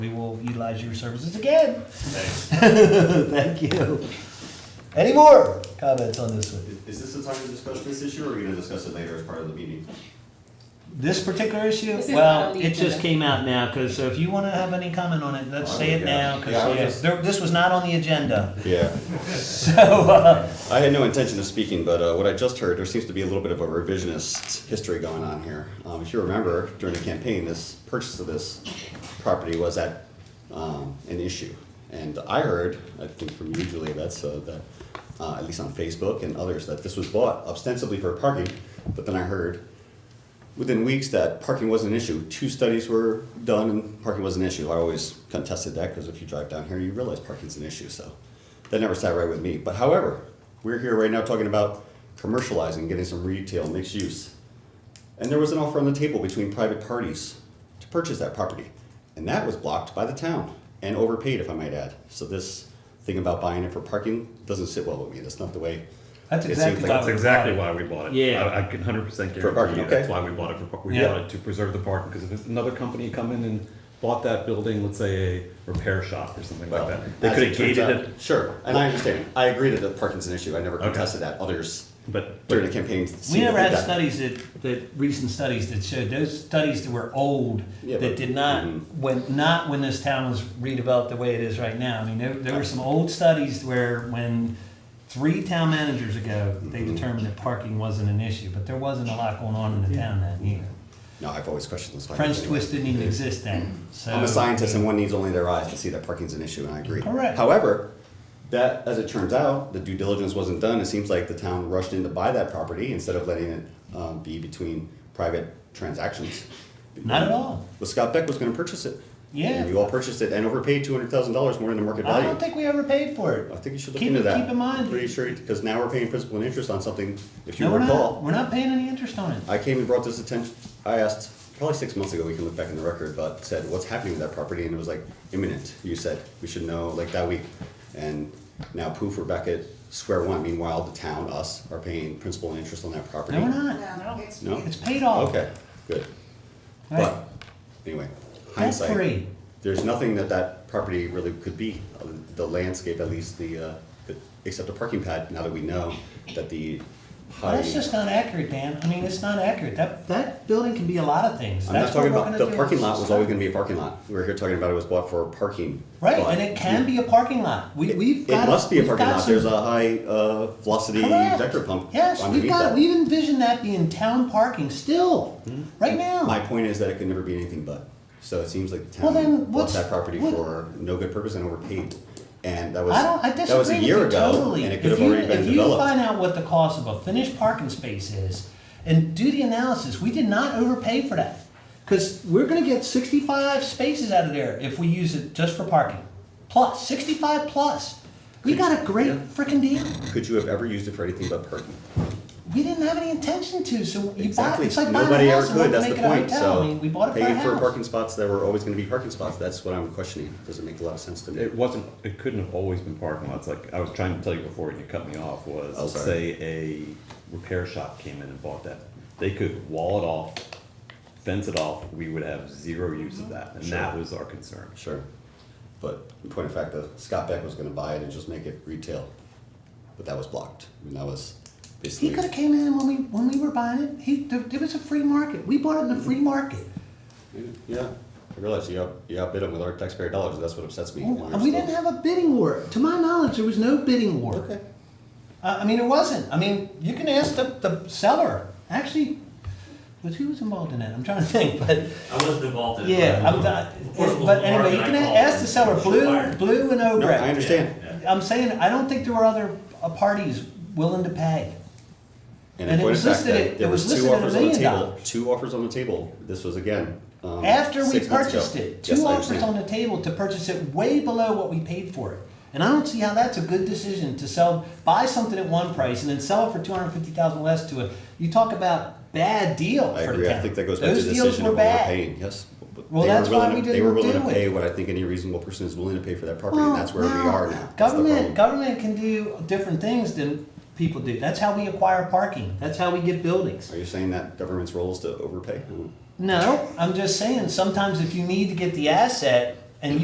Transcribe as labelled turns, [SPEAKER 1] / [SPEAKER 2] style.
[SPEAKER 1] We will utilize your services again.
[SPEAKER 2] Thanks.
[SPEAKER 1] Thank you. Any more comments on this one?
[SPEAKER 3] Is this the time to discuss this issue, or are you gonna discuss it later as part of the meeting?
[SPEAKER 1] This particular issue?
[SPEAKER 4] This is not
[SPEAKER 1] Well,
[SPEAKER 4] on the
[SPEAKER 1] it just
[SPEAKER 4] agenda.
[SPEAKER 1] came out now, because if you want to have any comment on it, let's say it now,
[SPEAKER 3] Yeah, I was
[SPEAKER 1] because
[SPEAKER 3] just-
[SPEAKER 1] this was not on the agenda.
[SPEAKER 3] Yeah,
[SPEAKER 1] So, uh,
[SPEAKER 3] I had no intention of speaking, but uh, what I just heard, there seems to be a little bit of a revisionist history going on here. Um, If you remember, during the campaign, this purchase of this property was at um, an issue. And I heard, I think from you, Julia, that's, uh, that, uh, at least on Facebook and others, that this was bought ostensibly for parking, but then I heard within weeks that parking was an issue. Two studies were done and parking was an issue. I always contested that because if you drive down here, you realize parking's an issue. So that never sat right with me. But however, we're here right now talking about commercializing, getting some retail mixed use. And there was an offer on the table between private parties to purchase that property. And that was blocked by the town and overpaid, if I might add. So this thing about buying it for parking doesn't sit well with me. That's not the way.
[SPEAKER 1] That's
[SPEAKER 3] it seems
[SPEAKER 1] exactly
[SPEAKER 3] like
[SPEAKER 1] why
[SPEAKER 3] it's
[SPEAKER 2] That's exactly why we bought it.
[SPEAKER 5] Yeah.
[SPEAKER 2] I I can hundred percent
[SPEAKER 3] For parking,
[SPEAKER 2] guarantee you that's
[SPEAKER 3] okay.
[SPEAKER 2] why we bought it for, par- we
[SPEAKER 1] Yeah.
[SPEAKER 2] bought it to preserve the parking, because if there's another company come in and bought that building, let's say a repair shop or something like
[SPEAKER 3] Well,
[SPEAKER 2] that, they
[SPEAKER 3] as
[SPEAKER 2] could have
[SPEAKER 3] turns
[SPEAKER 2] gated
[SPEAKER 3] out-
[SPEAKER 2] it,
[SPEAKER 3] Sure, and I understand. I agree that the parking's an issue. I never
[SPEAKER 2] Okay.
[SPEAKER 3] contested that. Others
[SPEAKER 2] but.
[SPEAKER 3] during the campaign.
[SPEAKER 1] We
[SPEAKER 3] seemed to
[SPEAKER 1] never
[SPEAKER 3] think
[SPEAKER 1] had
[SPEAKER 3] that.
[SPEAKER 1] studies that, that, recent studies that showed, those studies that were old,
[SPEAKER 3] Yeah,
[SPEAKER 1] that
[SPEAKER 3] but-
[SPEAKER 1] did not,
[SPEAKER 3] Mhm.
[SPEAKER 1] when, not when this town was redeveloped the way it is right now. I mean, there, there were some old studies where when three town managers ago, they
[SPEAKER 3] Mm-hmm.
[SPEAKER 1] determined that parking wasn't an issue, but there wasn't a lot going on in the town then either.
[SPEAKER 3] No, I've always questioned this.
[SPEAKER 1] French
[SPEAKER 3] anyway.
[SPEAKER 1] twist didn't even exist then, so.
[SPEAKER 3] I'm a scientist, and one needs only their eyes to see that parking's an issue, and I agree.
[SPEAKER 1] Correct.
[SPEAKER 3] However, that, as it turns out, the due diligence wasn't done. It seems like the town rushed in to buy that property instead of letting it um, be between private transactions.
[SPEAKER 1] Not at all.
[SPEAKER 3] Well, Scott Beck was going to purchase it.
[SPEAKER 1] Yeah.
[SPEAKER 3] And you all purchased it and overpaid two hundred thousand dollars more than the market
[SPEAKER 1] I
[SPEAKER 3] value.
[SPEAKER 1] don't think we ever paid for it.
[SPEAKER 3] I think you should look
[SPEAKER 1] Keep-
[SPEAKER 3] into that.
[SPEAKER 1] keep in mind-
[SPEAKER 3] Pretty sure, because now we're paying principal and interest on something, if you
[SPEAKER 1] No, we're not,
[SPEAKER 3] recall.
[SPEAKER 1] we're not paying any interest on it.
[SPEAKER 3] I came and brought this attention, I asked, probably six months ago, we can look back in the record, but said, what's happening with that property? And it was like imminent, you said, we should know like that week. And now poof, we're back at square one. Meanwhile, the town, us, are paying principal and interest on that property.
[SPEAKER 1] No, we're not.
[SPEAKER 4] No, it's.
[SPEAKER 3] No?
[SPEAKER 1] It's paid off.
[SPEAKER 3] Okay, good.
[SPEAKER 1] Oh. Right.
[SPEAKER 3] But, anyway,
[SPEAKER 1] That's free.
[SPEAKER 3] hindsight, there's nothing that that property really could be, uh, the landscape, at least the, uh, the- except a parking pad, now that we know that the
[SPEAKER 1] Well,
[SPEAKER 3] high.
[SPEAKER 1] that's just not accurate, Dan. I mean, it's not accurate. That, that building can be a lot of things.
[SPEAKER 3] I'm not
[SPEAKER 1] That's what
[SPEAKER 3] talking
[SPEAKER 1] we're
[SPEAKER 3] about,
[SPEAKER 1] gonna
[SPEAKER 3] the
[SPEAKER 1] do.
[SPEAKER 3] parking lot was always gonna be a parking lot, we were here talking about it was bought for parking.
[SPEAKER 1] Right,
[SPEAKER 3] but-
[SPEAKER 1] and it can be a parking lot. We, we've
[SPEAKER 3] It
[SPEAKER 1] got.
[SPEAKER 3] must be a
[SPEAKER 1] we've
[SPEAKER 3] parking
[SPEAKER 1] got
[SPEAKER 3] lot,
[SPEAKER 1] some-
[SPEAKER 3] there's a high, uh, velocity
[SPEAKER 1] Correct.
[SPEAKER 3] vector pump
[SPEAKER 1] Yes, we've
[SPEAKER 3] underneath
[SPEAKER 1] got,
[SPEAKER 3] that. Hmm.
[SPEAKER 1] we've envisioned that being town parking still, right
[SPEAKER 3] My
[SPEAKER 1] now.
[SPEAKER 3] point is that it could never be anything but. So it seems like the
[SPEAKER 1] Oh. Well, then
[SPEAKER 3] town bought
[SPEAKER 1] what's-
[SPEAKER 3] that property
[SPEAKER 1] what-
[SPEAKER 3] for no good purpose and overpaid. And that was,
[SPEAKER 1] I don't, I
[SPEAKER 3] that was
[SPEAKER 1] disagree
[SPEAKER 3] a
[SPEAKER 1] with
[SPEAKER 3] year
[SPEAKER 1] you
[SPEAKER 3] ago,
[SPEAKER 1] totally.
[SPEAKER 3] and it could
[SPEAKER 1] If
[SPEAKER 3] have
[SPEAKER 1] you,
[SPEAKER 3] already
[SPEAKER 1] if
[SPEAKER 3] been
[SPEAKER 1] you
[SPEAKER 3] developed.
[SPEAKER 1] find out what the cost of a finished parking space is and do the analysis, we did not overpay for that. Cause we're gonna get sixty-five spaces out of there if we use it just for parking. Plus, sixty-five plus. We got a great frickin' deal.
[SPEAKER 3] Could you have ever used it for anything but parking?
[SPEAKER 1] We didn't have any intention to, so you bought,
[SPEAKER 3] Exactly.
[SPEAKER 1] it's like buying
[SPEAKER 3] Nobody
[SPEAKER 1] a
[SPEAKER 3] ever
[SPEAKER 1] house and
[SPEAKER 3] could,
[SPEAKER 1] wanting to
[SPEAKER 3] that's
[SPEAKER 1] make
[SPEAKER 3] the
[SPEAKER 1] it a
[SPEAKER 3] point,
[SPEAKER 1] hotel. I
[SPEAKER 3] so.
[SPEAKER 1] mean, we bought it for a
[SPEAKER 3] Paying for
[SPEAKER 1] house.
[SPEAKER 3] parking spots that were always gonna be parking spots, that's what I'm questioning. Doesn't make a lot of sense to me.
[SPEAKER 2] It wasn't, it couldn't have always been parking lots, like I was trying to tell you before and you cut me off, was,
[SPEAKER 3] Oh,
[SPEAKER 2] let's
[SPEAKER 3] sorry.
[SPEAKER 2] say a repair shop came in and bought that. They could wall it off, fence it off, we would have zero use of that, and that
[SPEAKER 3] Sure.
[SPEAKER 2] was our concern.
[SPEAKER 3] Sure. But in point of fact, the Scott Beck was gonna buy it and just make it retail. But that was blocked. I mean, that was basically.
[SPEAKER 1] He could have came in when we, when we were buying it, he, there, it was a free market, we bought it in a free market.
[SPEAKER 3] Yeah, I realize you out, you outbid them with our taxpayer dollars, and that's what upsets me.
[SPEAKER 1] And Oh, we didn't have a bidding war, to my knowledge, there was no bidding war.
[SPEAKER 3] Okay.
[SPEAKER 1] Uh, I mean, it wasn't, I mean, you can ask the, the seller, actually, was who was involved in that, I'm trying to think, but,
[SPEAKER 6] I wasn't involved in it.
[SPEAKER 1] yeah, I'm, not- but anyway, you can ask the seller, Blue, Blue and
[SPEAKER 3] No,
[SPEAKER 1] Obrecht.
[SPEAKER 3] I understand.
[SPEAKER 1] I'm saying, I don't think there were other uh, parties willing to pay. And
[SPEAKER 3] And in
[SPEAKER 1] it
[SPEAKER 3] point
[SPEAKER 1] was
[SPEAKER 3] of fact,
[SPEAKER 1] listed at-
[SPEAKER 3] that
[SPEAKER 1] it
[SPEAKER 3] there
[SPEAKER 1] was
[SPEAKER 3] was two
[SPEAKER 1] listed at a
[SPEAKER 3] offers on the
[SPEAKER 1] million
[SPEAKER 3] table,
[SPEAKER 1] dollars.
[SPEAKER 3] two offers on the table, this was again, um,
[SPEAKER 1] After we
[SPEAKER 3] six months ago.
[SPEAKER 1] purchased it,
[SPEAKER 3] Yes,
[SPEAKER 1] two
[SPEAKER 3] I
[SPEAKER 1] offers on
[SPEAKER 3] understand.
[SPEAKER 1] the table to purchase it way below what we paid for it. And I don't see how that's a good decision to sell, buy something at one price and then sell it for two hundred fifty thousand less to a, you talk about bad deal
[SPEAKER 3] I
[SPEAKER 1] for
[SPEAKER 3] agree,
[SPEAKER 1] the town.
[SPEAKER 3] I think that goes back to the
[SPEAKER 1] Those deals
[SPEAKER 3] decision
[SPEAKER 1] were
[SPEAKER 3] of what we're
[SPEAKER 1] bad.
[SPEAKER 3] paying, yes. But
[SPEAKER 1] Well,
[SPEAKER 3] they were
[SPEAKER 1] that's why
[SPEAKER 3] willing to-
[SPEAKER 1] we
[SPEAKER 3] They were
[SPEAKER 1] didn't
[SPEAKER 3] willing
[SPEAKER 1] do
[SPEAKER 3] to
[SPEAKER 1] it.
[SPEAKER 3] pay what I think any reasonable person is willing to pay for that property,
[SPEAKER 1] Well,
[SPEAKER 3] and that's where we
[SPEAKER 1] no.
[SPEAKER 3] are now. That's the problem.
[SPEAKER 1] Government, government can do different things than people do. That's how we acquire parking. That's how we get buildings.
[SPEAKER 3] Are you saying that government's role is to overpay?
[SPEAKER 1] No, I'm just saying, sometimes if you need to get the asset,